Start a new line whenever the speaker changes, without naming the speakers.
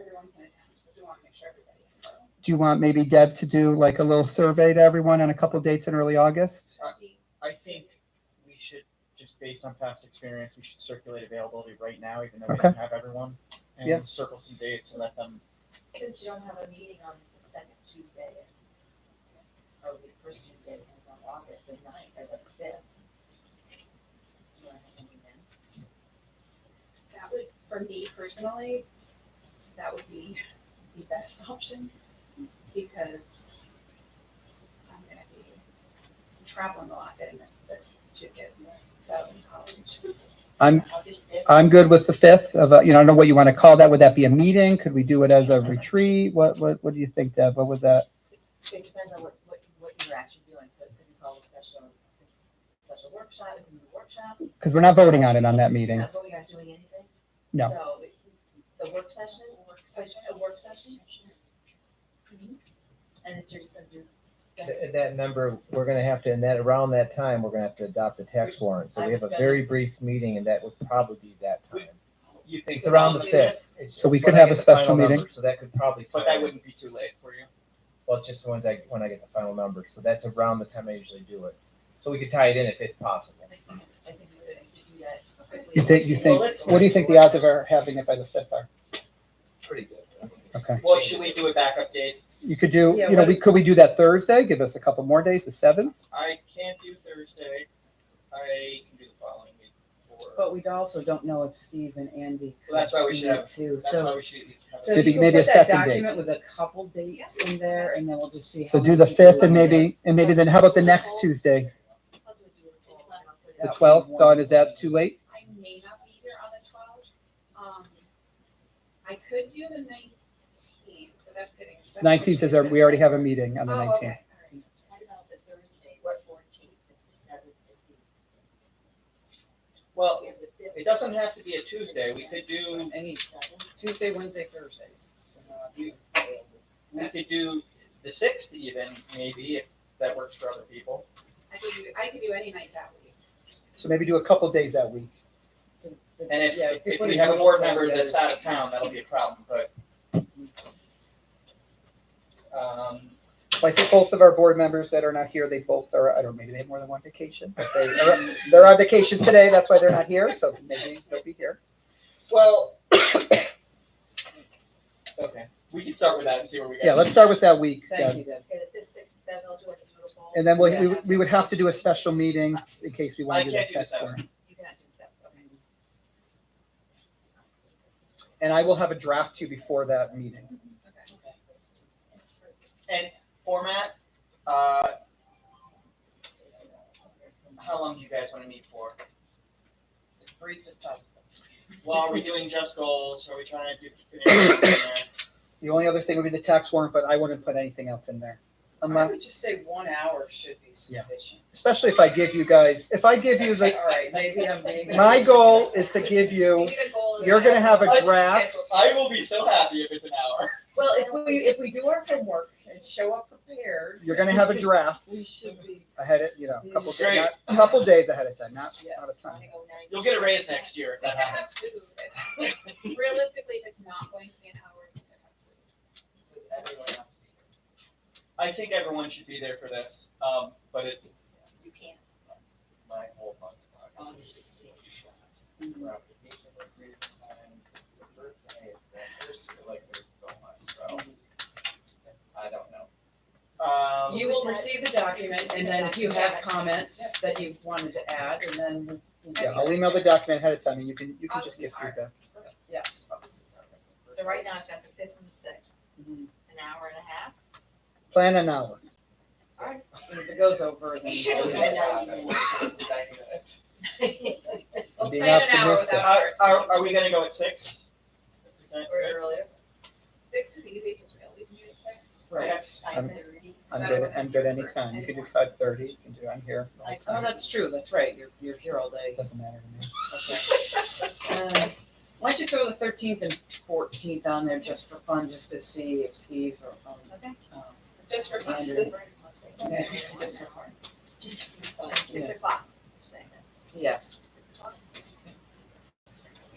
everyone can attend, because we want to make sure everybody can go.
Do you want maybe Deb to do like a little survey to everyone on a couple dates in early August?
I think we should, just based on past experience, we should circulate availability right now, even though we
Okay.
don't have everyone.
Yeah.
And circle some dates and let them,
Since you don't have a meeting on the second Tuesday, or the first Tuesday of August, the ninth or the fifth. Do you want to have anything then?
That would, for me personally, that would be the best option, because I'm gonna be traveling a lot getting the, the two kids, so in college.
August fifth?
I'm good with the fifth of, uh, you know, I don't know what you want to call that. Would that be a meeting? Could we do it as a retreat? What, what, what do you think, Deb? What was that?
It depends on what, what, what you're actually doing, so it could be called a special, special workshop, it could be a workshop.
Because we're not voting on it on that meeting.
Not going out doing anything?
No.
So, the work session, work session, a work session? And it's just gonna do.
Th- That number, we're gonna have to, and that, around that time, we're gonna have to adopt the tax warrant, so we have a very brief meeting, and that would probably be that time.
you think.
It's around the fifth. It's-
So we
it's
could
when I
have
get
a
the final
special
number,
meeting.
So that could probably.
But
tie
that
in.
wouldn't be too late for you.
Well, it's just the ones I, when I get the final number, so that's around the time I usually do it. So we could tie it in if it's possible.
I think I think we could actually do that quickly.
You think, you think,
Well, let's-
what do you think the odds of our having it by the fifth are?
Pretty good.
Okay.
Well, should we do a backup date?
You could do,
Yeah,
you know,
what-
we, could we do that Thursday? Give us a couple more days, the seventh?
I can't do Thursday. I can do the following week. Or,
But we also don't know if Steve and Andy.
Well, that's why we
could
should
do
have-
it Too,
that's why
so,
we should have.
so
a-
Maybe-
if you can
maybe a
put that
second date.
document with a couple dates in there, and then we'll just see.
So
how
do
many
the fifth and
people-
maybe, and maybe then how about the next Tuesday? The twelfth, Dawn, is that too late?
I may not be here on the twelfth, um, I could do the nineteenth, but that's getting. that's-
Nineteenth is our, we already have a meeting on the
Oh, okay,
nineteenth.
all right.
What about the Thursday, what fourteenth, the seventh, the
Well,
fifth, the fifth?
it doesn't have to be a Tuesday. We could do,
Any Tuesday, Wednesday, Thursday.
we we could do the sixth even, maybe, if that works for other people.
I could do, I could do any night that week.
So maybe do a couple days that week.
And if, if we have a board member that's out of town, that'll be a problem, but. Um,
So I think both of our board members that are not here, they both are, I don't know, maybe they have more than one vacation. but they- They're they're on vacation today, that's why they're not here, so maybe they'll be here.
well. Okay, we can start with that and see where we go.
Yeah, let's start with that week.
Thank
Deb.
you, Deb.
Okay, the fifth, sixth, seventh, I'll do like a total poll.
And then we, we-
Yes.
we would have to do a special meeting in case we
I
want to do that
can't do the
test
seventh.
form.
You cannot do that, okay.
And I will have a draft to you before that meeting.
And format, uh, how long do you guys wanna meet for?
As brief as possible.
Well, are we doing just goals? Are we trying to do? Well,
The only other thing would be the tax warrant, but I wouldn't put anything else in there.
I
Unless,
would just say one hour should be sufficient.
especially if I give you guys, if I give you the,
All right, maybe I'm being.
my goal is to give you,
Maybe the goal is
you're gonna have a
Let's
draft.
schedule something.
I will be so happy if it's an hour.
Well, if we, if we do our homework and show up prepared.
you're gonna have a draft
We should be,
ahead of, you know, a couple,
Great.
days, a couple days ahead of time, not, not a
yes.
ton.
You'll get a raise next year if
They
that
can
happens.
have food. Realistically, if it's not going to be an hour, they can have food.
Everyone has to be here. I think everyone should be there for this, um, but it,
You can't.
my whole month. of
on the
August is
16th.
around vacation work period and the birthday is the anniversary, like there's so much, so I don't know. Um,
You will receive the document, and then if you have comments that you wanted to add, and then, we-
Yeah, I'll email the document ahead of time and you can, you can just give feedback.
yes.
So right now, I've got the fifth and the sixth,
Mhm.
an hour and a half.
Plan an hour.
And if it goes over, then.
Yeah,
Okay.
We'll
Being
plan an hour
optimistic.
without
Are, Uh, are,
hours.
are we gonna go at six? Is that
Or
good?
earlier,
Six is easy because we always meet at six.
Right.
five thirty.
I'm good, I'm good anytime. You can do five thirty, you can do, I'm here.
Like,
Oh, that's true, that's right, you're, you're here all day.
Doesn't matter to me.
Uh, Why don't you throw the thirteenth and fourteenth on there just for fun, just to see if Steve or, um,
Okay.
um,
Just for fun.
Andrew.
Just for fun, Six o'clock, you're saying that.
yes,